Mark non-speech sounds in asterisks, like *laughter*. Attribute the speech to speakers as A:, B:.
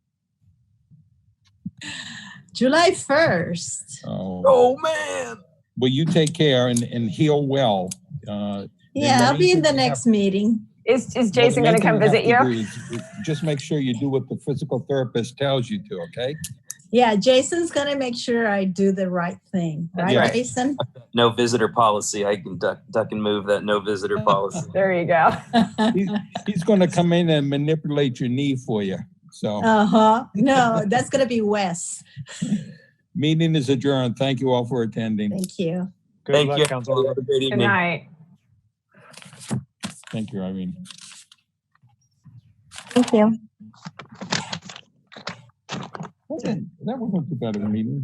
A: July 1st.
B: Oh,
C: Oh, man.
B: Well, you take care and, and heal well. Uh,
A: Yeah, I'll be in the next meeting.
D: Is, is Jason
B: what
D: going to come
B: Nathan
D: visit
B: will have
D: you?
B: to do is Just make sure you do what the physical therapist tells you to, okay?
A: Yeah, Jason's gonna make sure I do the right thing, right,
B: Yeah.
A: Jason?
E: No visitor policy. I can duck, duck and move that no
C: *laughs*
E: visitor policy.
D: There you go.
B: He's going to come in and manipulate your knee for you. So,
A: Uh huh. No, that's gonna be Wes.
B: meeting is adjourned. Thank you all for attending.
A: Thank you.
C: Good
E: Thank you.
C: luck, Councilor.
E: Have a great
D: Good
E: evening.
D: night.
B: Thank you, Irene.
F: Thank you.
B: That wasn't too bad of a meeting.